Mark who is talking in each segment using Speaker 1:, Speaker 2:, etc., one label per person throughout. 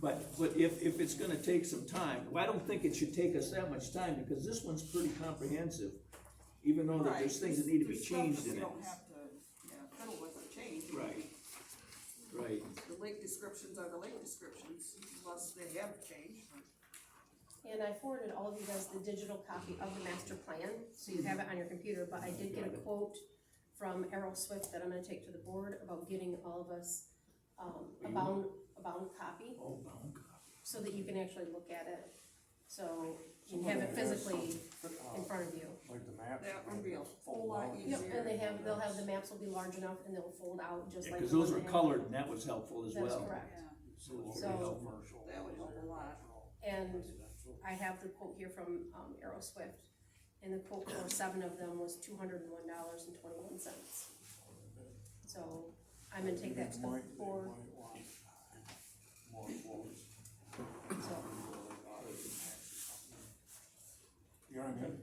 Speaker 1: But, but if, if it's gonna take some time, well, I don't think it should take us that much time, because this one's pretty comprehensive, even though that there's things that need to be
Speaker 2: There's stuff
Speaker 1: changed in
Speaker 2: We
Speaker 1: it.
Speaker 2: don't have to, yeah, fiddle with or change.
Speaker 1: Right, right,
Speaker 2: The lake descriptions are the lake descriptions, unless they have changed.
Speaker 3: And I forwarded all of you guys the digital copy of the master plan, so you have it on your computer, but I did get a quote from Errol Swift that I'm gonna take to the board about getting all of us, um, a bound, a bound copy,
Speaker 1: oh, bound copy.
Speaker 3: so that you can actually look at it. So you have it physically in front of you.
Speaker 4: Like the maps.
Speaker 2: That would be a whole lot
Speaker 3: Yep,
Speaker 2: easier.
Speaker 3: and they have, they'll have, the maps will be large enough and they'll fold out just
Speaker 1: Yeah,
Speaker 3: like.
Speaker 1: cause
Speaker 3: the
Speaker 1: those
Speaker 3: one
Speaker 1: are
Speaker 3: they have.
Speaker 1: colored, and that was helpful as well.
Speaker 3: That's correct.
Speaker 2: Yeah,
Speaker 4: So it'll be
Speaker 3: So-
Speaker 4: commercial.
Speaker 2: That would help a lot.
Speaker 3: And I have the quote here from, um, Arrow Swift, and the quote for seven of them was two hundred and one dollars and twenty-one cents. So I'm gonna take that to the
Speaker 4: Might- they
Speaker 3: board,
Speaker 4: might want More floors.
Speaker 3: so,
Speaker 4: You know what I mean?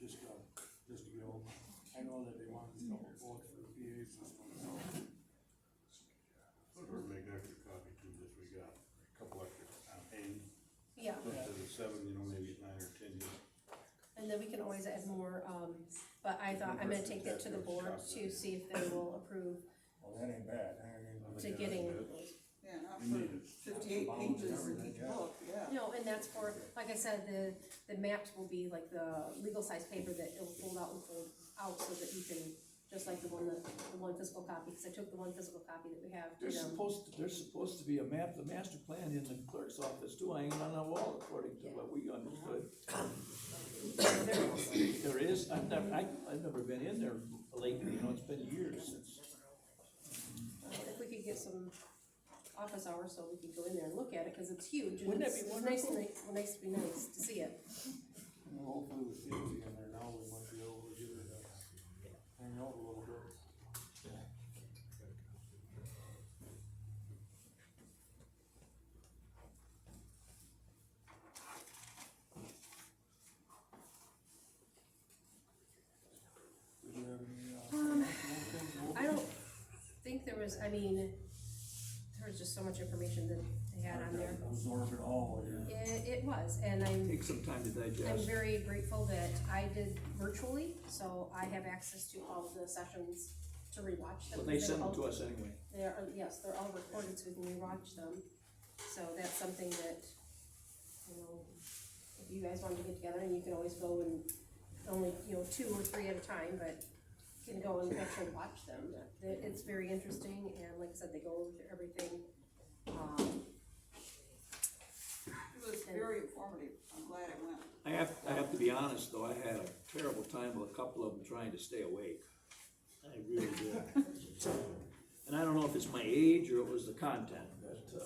Speaker 4: Just go, just to go. I know that they want a couple floors for the PA system, so.
Speaker 5: Or make an extra copy too, just we got a couple extra um, on hand,
Speaker 3: yeah,
Speaker 5: instead of seven, you know, maybe nine or ten.
Speaker 3: and then we can always add more, um, but I thought, I'm gonna take that to the board to see if they will approve
Speaker 4: Well, that ain't bad. That ain't-
Speaker 3: to getting.
Speaker 2: Yeah, not for fifty-eight pages in each book, yeah.
Speaker 3: No, and that's for, like I said, the, the maps will be like the legal size paper that it'll fold out and fold out so that you can, just like the one, that the one physical copy, because I took the one physical copy that we have
Speaker 1: There's
Speaker 3: to them.
Speaker 1: supposed, to- there's supposed to be a map, the master plan in the clerk's office too, hanging on the wall according to what we understood.
Speaker 3: So they're-
Speaker 1: There is, I've never, I, I've never been in there lately, you know, it's been years since.
Speaker 3: If we could get some office hours so we could go in there and look at it, because it's huge. and
Speaker 1: Wouldn't that
Speaker 3: it's-
Speaker 1: be
Speaker 3: it's nice and ni- well, Nice to be nice to see it.
Speaker 4: Well, Hopefully with Susie in there now, we might be able to get her to hang out a little bit. Did you have any, uh, more things
Speaker 3: Um,
Speaker 4: open?
Speaker 3: I don't think there was, I mean, there was just so much information that they had on there.
Speaker 4: Absorb it all, yeah.
Speaker 3: It, it was, and I'm
Speaker 1: Take some time to
Speaker 3: I'm
Speaker 1: digest.
Speaker 3: very grateful that I did virtually, so I have access to all of the sessions to rewatch them.
Speaker 1: But they
Speaker 3: They're
Speaker 1: send them
Speaker 3: all-
Speaker 1: to us anyway.
Speaker 3: They're, yes, they're all recorded, so we can rewatch them. So that's something that, you know, if you guys wanted to get together, and you can always go and only, you know, two or three at a time, but you can go and actually watch them. That- It's very interesting, and like I said, they go over to everything. Um,
Speaker 2: It was very informative, I'm glad I went.
Speaker 1: I have, I have to be honest, though, I had a terrible time with a couple of them trying to stay awake. I really did. And I don't know if it's my age or it was the content, but, uh,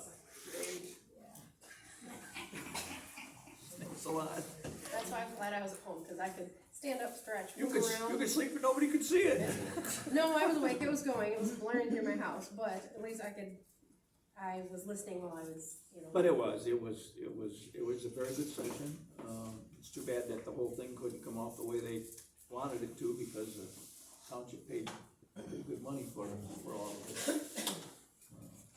Speaker 1: it's a lot.
Speaker 3: That's why I'm glad I was at home, because I could stand up, stretch,
Speaker 1: You
Speaker 3: move
Speaker 1: could,
Speaker 3: around.
Speaker 1: you could sleep and nobody could see it.
Speaker 3: No, I was awake, it was going, it was blaring through my house, but at least I could, I was listening while I was, you know.
Speaker 1: But it was, it was, it was, it was a very good session. Um, it's too bad that the whole thing couldn't come off the way they wanted it to because the township paid pretty good money for, for all of it. Uh,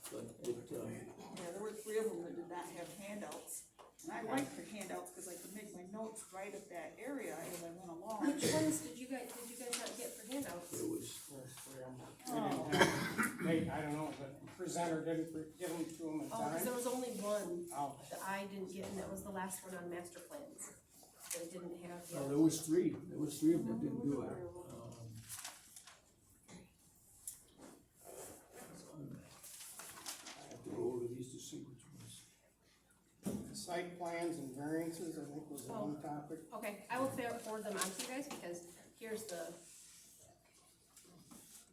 Speaker 1: But it, um,
Speaker 2: Yeah, there were three of them that did not have handouts, and I liked the handouts, cause I could make my notes right at that area as I went along.
Speaker 3: Which ones did you guys, did you guys not get for handouts?
Speaker 1: it was,
Speaker 6: We didn't have- They, I don't know, but the presenter didn't pre- give them to him in
Speaker 3: Oh, because
Speaker 6: time.
Speaker 3: there was only one
Speaker 6: Oh,
Speaker 3: that I didn't get, and that was the last one on master plans. They didn't have
Speaker 1: well,
Speaker 3: yet.
Speaker 1: Oh, there was three, there was three of them that didn't do it. Um, I have to go over these to see which ones.
Speaker 6: site plans and variances, I think was the one topic.
Speaker 3: Oh, Okay, I will fa- forward them on to you guys, because here's the,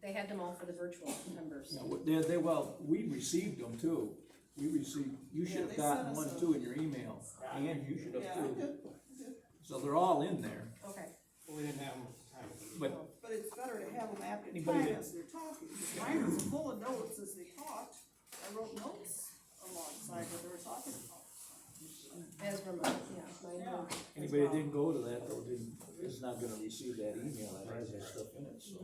Speaker 3: they had them all for the virtual members.
Speaker 1: Yeah, well, they, they, well, we received them too. We received, you
Speaker 2: Yeah,
Speaker 1: should
Speaker 2: they
Speaker 1: have gotten
Speaker 2: sent us
Speaker 1: one
Speaker 2: a-
Speaker 1: too in your email, and you should have
Speaker 2: Yeah, I
Speaker 1: too.
Speaker 2: did, I did.
Speaker 1: So they're all in there,
Speaker 3: Okay,
Speaker 6: We didn't have them at the time.
Speaker 1: but
Speaker 2: But it's better to have them after
Speaker 1: Anybody
Speaker 2: time
Speaker 1: that-
Speaker 2: as they're talking, because mine was full of notes as they talked, I wrote notes alongside what they were talking about.
Speaker 3: as were mine, yeah, mine were. as
Speaker 1: anybody that
Speaker 3: well.
Speaker 1: didn't go to that though, didn't, is not gonna receive that email that has that stuff in it, so.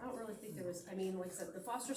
Speaker 3: I don't really think there was, I mean, like I said, the foster